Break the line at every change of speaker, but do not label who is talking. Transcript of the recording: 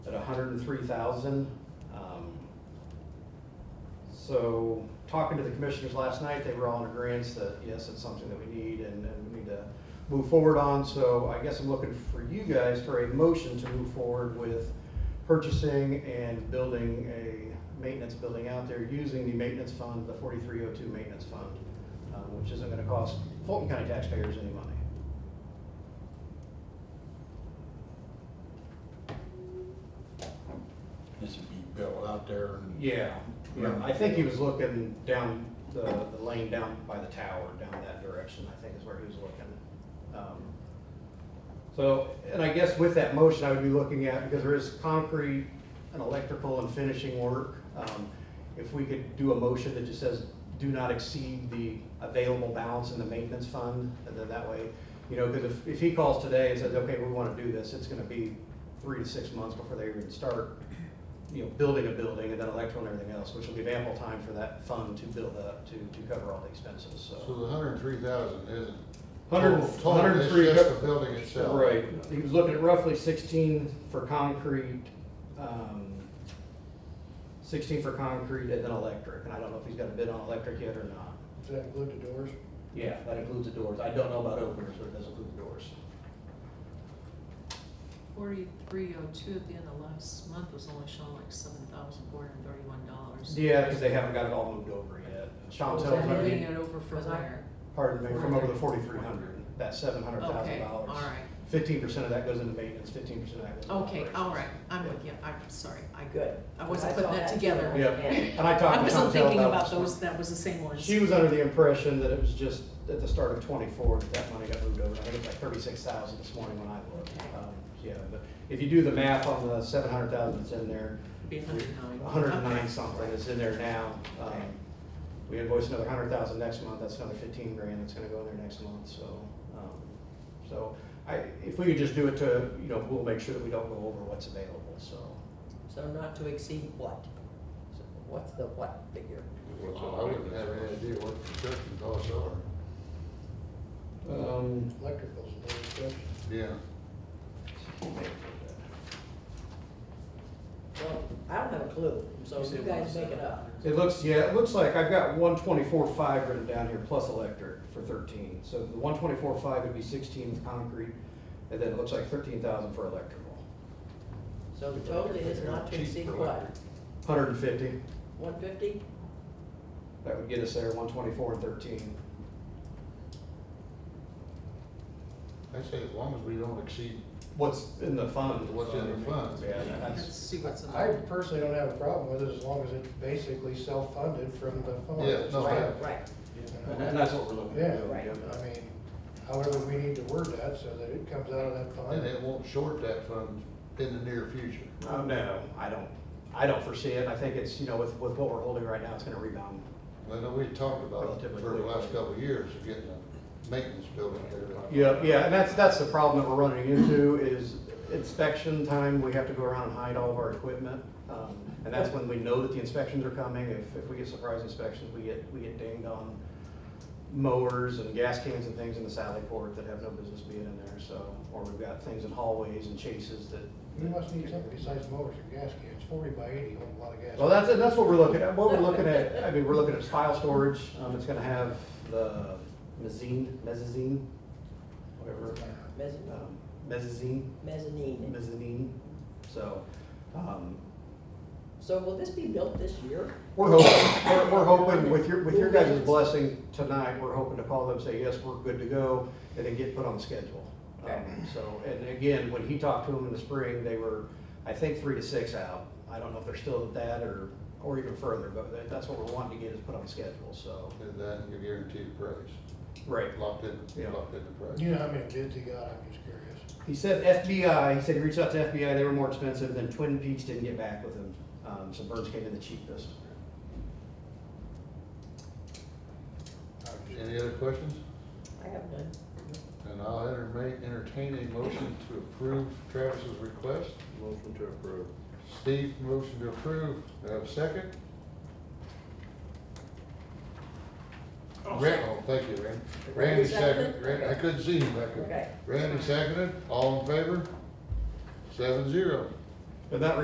hundred and three thousand. Um, So, talking to the commissioners last night, they were all in agreeance that, yes, it's something that we need and, and we need to move forward on. So I guess I'm looking for you guys for a motion to move forward with purchasing and building a maintenance building out there using the maintenance fund, the forty-three oh two maintenance fund, um, which isn't gonna cost Fulton County taxpayers any money.
This would be built out there and.
Yeah, yeah, I think he was looking down the, the lane down by the tower, down that direction, I think is where he was looking. Um, So, and I guess with that motion, I would be looking at, because there is concrete and electrical and finishing work, um, if we could do a motion that just says, do not exceed the available balance in the maintenance fund, and then that way, you know, because if, if he calls today and says, okay, we want to do this, it's gonna be three to six months before they even start, you know, building a building and then electrical and everything else, which will give ample time for that fund to build up, to, to cover all the expenses,
So
so.
the hundred and three thousand isn't.
Hundred-
total- total, it's
103
Just the building itself.
Right, he was looking at roughly sixteen for concrete, um, sixteen for concrete and then electric, and I don't know if he's got a bid on electric yet or not.
Does that include the doors?
Yeah, that includes the doors, I don't know about openers, but it does include the doors.
Forty-three oh two at the end of last month was only showing like seven thousand four hundred and thirty-one dollars.
Yeah, because they haven't got it all moved over yet. Sean
Was
tells
that moving
me,
it over from
Was I-
where?
pardon me, from over the forty-three hundred, that seven hundred thousand
Okay,
dollars.
all right,
Fifteen percent of that goes into maintenance, fifteen percent of that goes into
okay,
operations.
all right, I'm with you, I'm sorry, I,
Good.
I wasn't putting that together.
Yeah, and I talked
I
to Chantel about
wasn't thinking about
this one.
those, that was the same ones.
She was under the impression that it was just at the start of twenty-four that that money got moved over. I think it's like thirty-six thousand this morning when I looked. Um, Yeah, but if you do the math on the seven hundred thousand that's in there,
Be a hundred and nine.
hundred and
Okay.
nine something is in there now. Um,
Okay.
We invoice another hundred thousand next month, that's another fifteen grand that's gonna go in there next month, so. um, So I, if we could just do it to, you know, we'll make sure that we don't go over what's available, so.
So not to exceed what? So What's the what figure?
Well, I wouldn't have any idea what construction costs are.
Um,
Electricals,
Yeah.
Well, I don't have a clue, so you guys make it up.
It looks, yeah, it looks like I've got one twenty-four five written down here plus electric for thirteen. So the one twenty-four five would be sixteen with concrete, and then it looks like thirteen thousand for electrical.
So the total is not to
Cheap
exceed
for
what,
electric.
Hundred and fifty,
one fifty?
that would get us there, one twenty-four and thirteen.
I say as long as we don't exceed,
What's in the fund?
What's in the fund?
Yeah,
Let's
that's,
see what's in
I
there.
personally don't have a problem with it as long as it's basically self-funded from the fund.
Yeah, no, I-
You
Right,
know?
and that's what we're looking
Yeah,
to do.
right.
I mean, however, we need to word that so that it comes out of that
and
fund.
it won't short that fund in the near future.
Um, no, I don't, I don't foresee it. I think it's, you know, with, with what we're holding right now, it's gonna rebound.
I know we talked about it
Relatively
for the
quick.
last couple of years, getting a maintenance building here. but-
Yeah, yeah, and that's, that's the problem that we're running into is inspection time, we have to go around and hide all of our equipment. Um, And that's when we know that the inspections are coming, if, if we get surprise inspections, we get, we get dinged on mowers and gas cans and things in the Sally Port that have no business being in there, so, or we've got things in hallways and chases that.
You must need something besides motors or gas cans, forty by eighty, holds a lot of gas.
Well, that's, that's what we're looking at, what we're looking at, I mean, we're looking at file storage, um, it's gonna have the mezzine, mezzanine, whatever,
mezzanine,
um, mezzanine.
mezzanine.
mezzanine. So, um,
So will this be built this year?
we're hoping, we're, we're hoping with your, with your guys' blessing tonight, we're hoping to call them, say, yes, we're good to go, and then get put on the schedule.
Okay.
Um, So, and again, when he talked to them in the spring, they were, I think, three to six out. I don't know if they're still at that or, or even further, but that- that's what we're wanting to get is put on the schedule, so.
And then you guarantee the price,
Right.
locked in,
Yeah.
locked in the price.
You know how many bids he got, I'm just curious.
He said FBI, he said he reached out to FBI, they were more expensive, then Twin Peaks didn't get back with him, um, so Burns came in the cheapest.
I'm just-
Any other questions?
I have none.
And I'll entertain, entertain a motion to approve Travis's request.
Motion to approve.
Steve, motion to approve, Do I have a second? Randy, oh, thank you, Randy. Randy seconded, Randy, I couldn't see him back there.
Okay.
Randy seconded, all in favor? Seven zero.
And that